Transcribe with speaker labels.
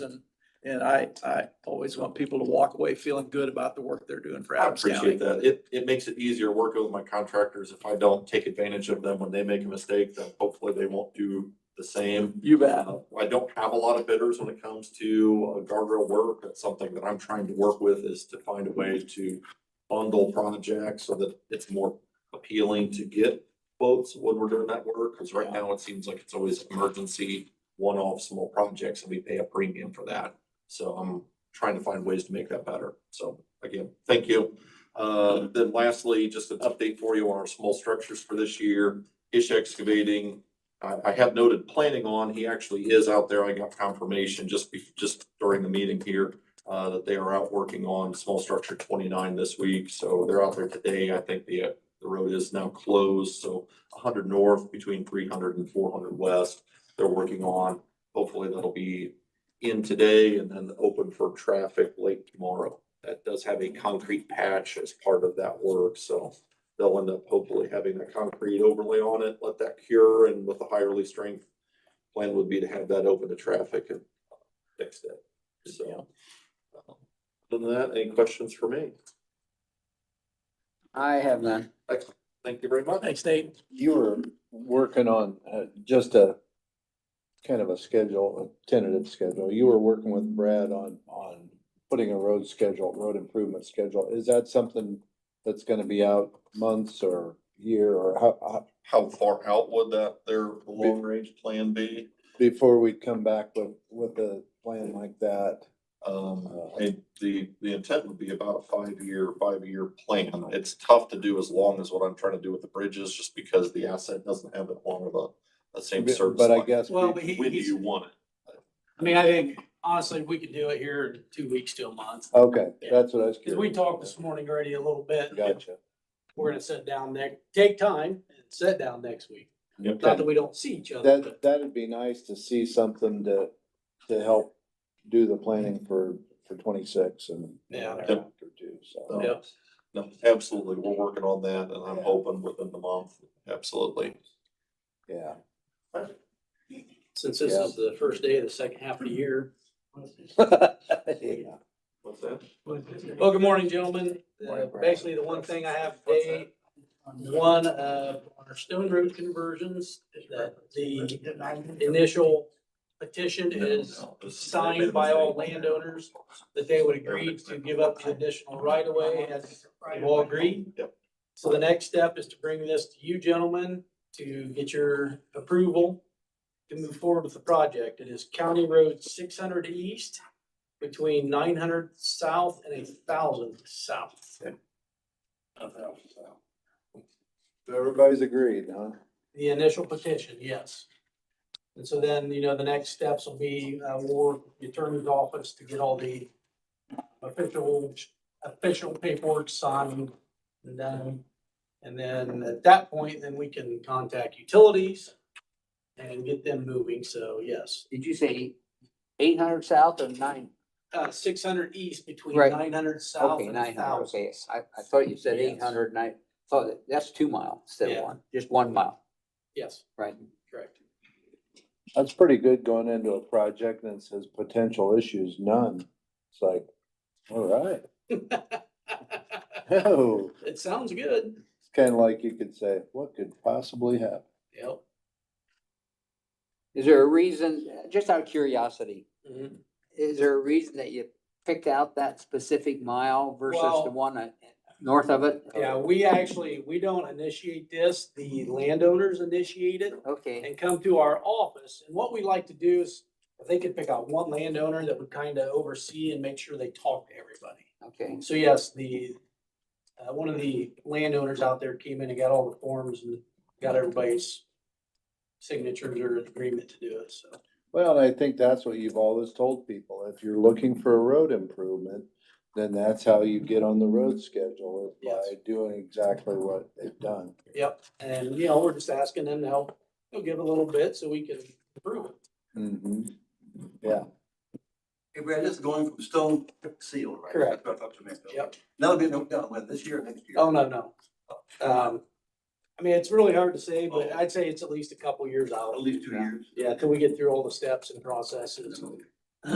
Speaker 1: And, and I, I always want people to walk away feeling good about the work they're doing for
Speaker 2: I
Speaker 1: Adams
Speaker 2: appreciate
Speaker 1: County.
Speaker 2: that. It, it makes it easier working with my contractors. If I don't take advantage of them when they make a mistake, then hopefully they won't do the same.
Speaker 1: You bet.
Speaker 2: Uh, I don't have a lot of bidders when it comes to uh, guardrail work. That's something that I'm trying to work with is to find a way to bundle projects so that it's more appealing to get quotes when we're doing that work. Cause right now it seems like it's always emergency, one-off small projects and we pay a premium for that. So I'm trying to find ways to make that better. So again, thank you. Uh, then lastly, just an update for you on our small structures for this year. Ish excavating, I, I have noted planning on, he actually is out there. I got confirmation just be, just during the meeting here. Uh, that they are out working on small structure twenty-nine this week, so they're out there today. I think the, uh, the road is now closed, so hundred north between 300 and 400 west. They're working on, hopefully that'll be in today and then open for traffic late tomorrow. That does have a concrete patch as part of that work, so they'll end up hopefully having a concrete overlay on it, let that cure and with a higher lease strength. Plan would be to have that open to traffic and fix it, so. um, Other than that, any questions for me?
Speaker 3: I have none.
Speaker 2: Thank you very much.
Speaker 1: Thanks, Nate.
Speaker 4: You were working on uh, just a kind of a schedule, a tentative schedule. You were working with Brad on, on putting a road schedule, road improvement schedule. Is that something that's gonna be out months or year or how, how,
Speaker 2: How far out would that, their long range plan be?
Speaker 4: before we come back with, with a plan like that?
Speaker 2: Um,
Speaker 4: Uh,
Speaker 2: and the, the intent would be about a five-year, five-year plan. It's tough to do as long as what I'm trying to do with the bridges, just because the asset doesn't have that long of a, a same service.
Speaker 4: But I
Speaker 2: life.
Speaker 4: guess,
Speaker 1: Well, but he,
Speaker 2: When do
Speaker 1: he's,
Speaker 2: you want it?
Speaker 1: I mean, I think honestly, we could do it here in two weeks to a month.
Speaker 4: okay, that's what I was
Speaker 1: Cause we
Speaker 4: curious.
Speaker 1: talked this morning already a little bit.
Speaker 4: Gotcha.
Speaker 1: We're gonna sit down next, take time and sit down next week.
Speaker 2: Yep.
Speaker 1: Not that we don't see each other,
Speaker 4: That,
Speaker 1: but
Speaker 4: that'd be nice to see something to, to help do the planning for, for twenty-six and.
Speaker 1: Yeah.
Speaker 4: After too, so.
Speaker 2: So,
Speaker 1: Yep.
Speaker 2: No, absolutely. We're working on that and I'm hoping within the month. Absolutely.
Speaker 4: Yeah,
Speaker 1: since this is the first day of the second half of the year.
Speaker 4: yeah.
Speaker 2: What's that?
Speaker 1: Well, good morning, gentlemen. Uh,
Speaker 4: Morning, Brad.
Speaker 1: Basically, the one thing I have today, one of our Stone Road conversions, that the initial petition is signed by all landowners that they would agree to give up the additional right of way as you all agree.
Speaker 2: Yep.
Speaker 1: So the next step is to bring this to you gentlemen to get your approval to move forward with the project. It is County Road six hundred east between nine hundred south and a thousand south.
Speaker 4: Everybody's agreed, huh?
Speaker 1: The initial petition, yes. And so then, you know, the next steps will be, uh, war, the attorney's office to get all the official, official paperwork signed and done. And then at that point, then we can contact utilities and get them moving. So yes,
Speaker 3: Did you say eight hundred south of nine?
Speaker 1: uh, six hundred east between
Speaker 3: Right.
Speaker 1: nine hundred south
Speaker 3: Okay,
Speaker 1: and
Speaker 3: nine hundred,
Speaker 1: thousand.
Speaker 3: okay, I, I thought you said
Speaker 1: Yes.
Speaker 3: eight hundred and I thought that- that's two mile instead
Speaker 1: Yeah.
Speaker 3: of one, just one mile,
Speaker 1: Yes,
Speaker 3: right?
Speaker 1: correct.
Speaker 4: That's pretty good going into a project and it says potential issues, none. It's like, all right. Oh,
Speaker 1: It sounds good.
Speaker 4: it's kind of like you could say, what could possibly happen?
Speaker 1: Yep.
Speaker 3: Is there a reason, just out of curiosity,
Speaker 1: Mhm.
Speaker 3: is there a reason that you picked out that specific mile versus
Speaker 1: Well-
Speaker 3: the one uh, north of it?
Speaker 1: Yeah, we actually, we don't initiate this. The landowners initiate it
Speaker 3: Okay,
Speaker 1: and come to our office. And what we like to do is if they could pick out one landowner that would kind of oversee and make sure they talk to everybody.
Speaker 3: okay,
Speaker 1: So yes, the, uh, one of the landowners out there came in and got all the forms and got everybody's signatures or agreement to do it, so.
Speaker 4: Well, I think that's what you've always told people. If you're looking for a road improvement, then that's how you get on the road schedule, is by doing exactly what they've done.
Speaker 1: Yep, and you know, we're just asking them to help, they'll give a little bit so we can approve it.
Speaker 4: Mhm.
Speaker 5: Hey Brad, this is going from stone to seal, right?
Speaker 1: Correct.
Speaker 5: That's what I thought you meant.
Speaker 1: Yep.
Speaker 5: That'll be no, no, when, this year, or next year?
Speaker 1: Oh, no, no. Um, I mean, it's really hard to say, but I'd say it's at least a couple years out.
Speaker 5: At least two years.
Speaker 1: Yeah, till we get through all the steps and processes.